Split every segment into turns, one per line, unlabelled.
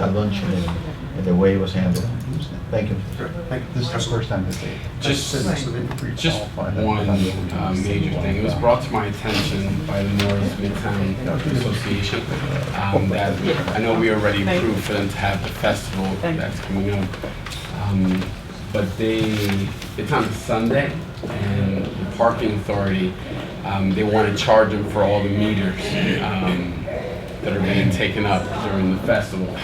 at lunch meeting and the way it was handled. Thank you.
Like, this is the first time this day.
Just-
So they pre-qualify
Just
that.
one uh, major thing, it was brought to my attention by the North Midtown Association um, that, I know we already approved for them to have the festival that's coming up, um, but they, it's on Sunday, and the parking authority, um, they want to charge them for all the meters um, that are being taken up during the festival.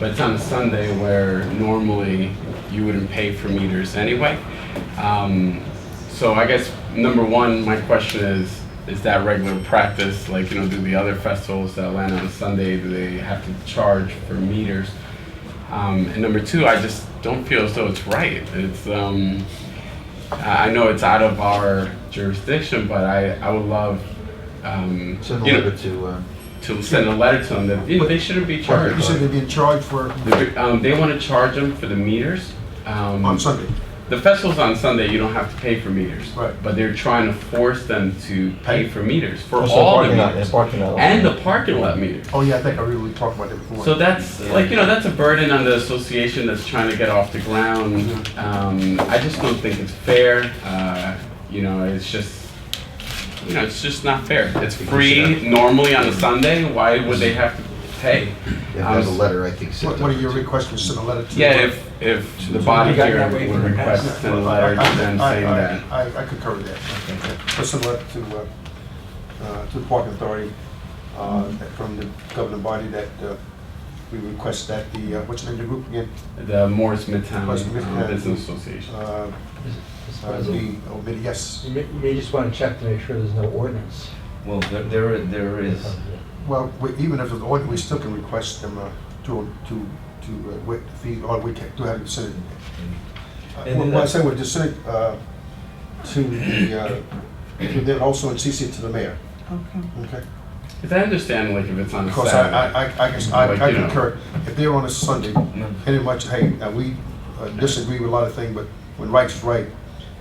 But it's on a Sunday where normally you wouldn't pay for meters anyway. Um, so I guess number one, my question is, is that regular practice? Like, you know, do the other festivals that land on Sunday, do they have to charge for meters? Um, and number two, I just don't feel as though it's right. It's, um, I I know it's out of our jurisdiction, but I, I would love, um,
Send a
you know,
letter to, uh,
to send a letter to them that you know, they shouldn't be
You said
charged.
they'd be in charge for,
The- um, they want to charge them for the meters. Um,
on Sunday.
the festival's on Sunday. You don't have to pay for meters,
Right.
but they're trying to force them to pay for meters for
also
all the
parking lot-
meters
and parking lot.
and the parking lot meters.
Oh, yeah, I think I really talked about it before.
So that's like you know that's a burden on the association that's trying to get off the ground. Um, I just don't think it's fair. Uh, you know, it's just you know it's just not fair. It's free normally on a Sunday. Why would they have to pay?
Yeah, there's a
Um,
letter, I think, sent.
What what are your requests, just send a letter to?
Yeah, if if the body here would request a letter
I- I-
to them
I-
saying
I-
that.
I, I concur with that. Just send a letter to, uh, uh, to the parking authority, uh, that from the governing body that, uh, we request that the, uh, what's the name of the group again?
The Morris Midtown
Morris Midtown.
uh, Business Association.
Uh, uh,
You
the, oh, maybe, yes.
may- you may just want to check to make sure there's no ordinance.
Well, there- there, there is,
Well, we- even if it's ordered, we still can request them, uh, to, to, to uh, waive the fee, or we can, to have it sent in.
And
Well,
then
well, I
that's-
say we just send it uh, to the, uh, to them also and CC it to the mayor,
Okay.
okay?
Because I understand like if it's on a
Because I,
Saturday.
I, I- I guess, I
Like,
I
you know.
concur, if they're on a Sunday, pretty much, hey, uh, we uh, disagree with a lot of things, but when right's right,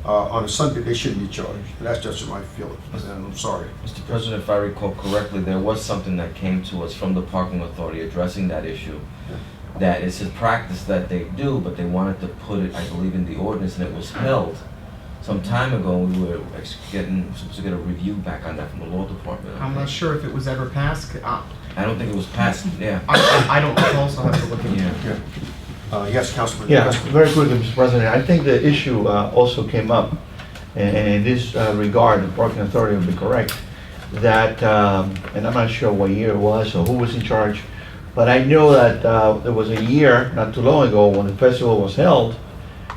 uh, on a Sunday, they shouldn't be charged. That's just my feeling, and I'm sorry.
Mr. President, if I recall correctly, there was something that came to us from the parking authority addressing that issue. That it's a practice that they do, but they wanted to put it, I believe, in the ordinance, and it was held some time ago, and we were ex- getting, supposed to get a review back on that from the law department. I
I'm not
think.
sure if it was ever passed. I,
I don't think it was passed, yeah,
I, I don't recall, so I'll have to look into it.
yeah.
Yeah. Uh, Yes, Councilman.
Yeah,
Councilman.
very quickly, Mr. President. I think the issue uh, also came up, and and in this uh, regard, the parking authority will be correct, that, um, and I'm not sure what year it was or who was in charge, but I know that uh, there was a year, not too long ago, when the festival was held,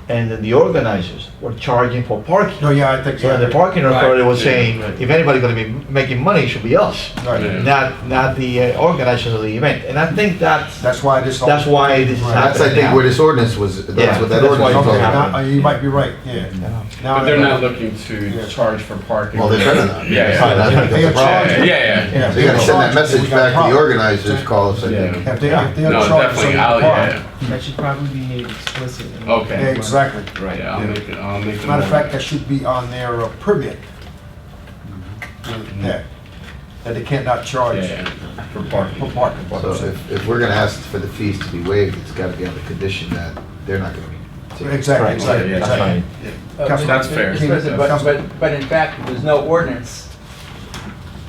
and then the organizers were charging for parking.
No, yeah, I think.
So the parking authority was
yeah,
saying,
right.
if anybody's gonna be making money, it should be us,
Right.
not, not the uh, organizers of the event. And I think that's,
That's why this.
that's why this is
Right.
happening
That's, I think,
now.
where this ordinance was,
Yeah,
that's what that
that's why
ordinance was
it's
talking
Okay,
happening.
about.
now, uh, you might be right, yeah. Now
But they're
I-
not looking to
Yeah.
charge for parking.
Well, they better not.
Yeah, yeah.
Fine, I think that's a problem.
Yeah, yeah, yeah.
Yeah,
They gotta send that message
We got a
back to the
problem.
organizers, call us, I think.
Yeah.
If they, if they're
No,
charged
definitely.
something
I'll,
apart.
yeah.
That should probably be made explicit. in-
Yeah,
Okay.
exactly.
Right. Yeah, I'll make it. I'll make it.
Matter of fact, that should be on their uh, permit.
Mm-hmm.
Yeah, that they can't not charge
yeah, yeah. for
for
parking.
parking.
So if, if we're gonna ask for the fees to be waived, it's gotta be on the condition that they're not gonna be. taken.
Exactly, exactly,
Yeah, that's
exactly.
Uh,
Councilman-
That's fair.
Mr. President, But,
Councilman-
but, but in fact, if there's no ordinance,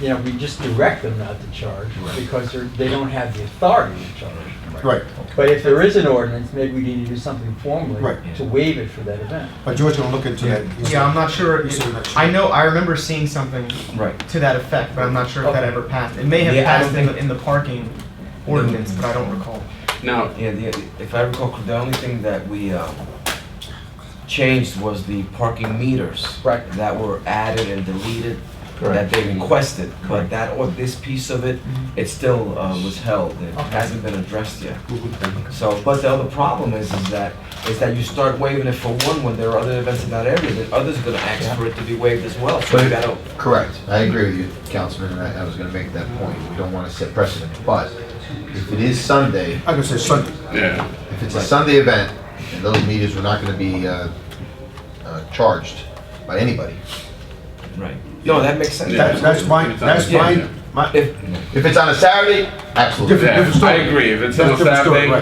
you know, we just direct them not to charge because they're, they don't have the authority to charge.
Right,
But if there is an ordinance, maybe we need to do something formally
Right.
to waive it for that event.
but George gonna look into that. He's-
Yeah, I'm not sure.
he's doing that shit.
I know, I remember seeing something
Right.
to that effect, but I'm not sure if that
Okay.
ever passed. It may have
Yeah, I
passed
don't
in the,
think-
in the parking ordinance, but I don't recall.
Now,
Yeah, the, if I recall, the only thing that we, um, changed was the parking meters.
Right.
That were added and deleted, that
Correct.
they requested, but that, or this piece of it, it still, uh, was held, it hasn't been addressed yet. So, but the other problem is, is that, is that you start waiving it for one when there are other events in that area, then others are gonna ask for it to be waived as well, so you gotta.
Correct, I agree with you, Councilman, and I, I was gonna make that point, we don't wanna set precedent, but if it is Sunday,
I can say Sunday,
yeah.
if it's a Sunday event, and those meters were not gonna be, uh, uh, charged by anybody.
Right. No, that makes sense.
Yeah.
that's, that's my, that's my, my,
If,
If it's on a Saturday, absolutely.
Different-
Yeah,
different story.
I agree. If it's
That's
on a
different story,
Saturday,
right.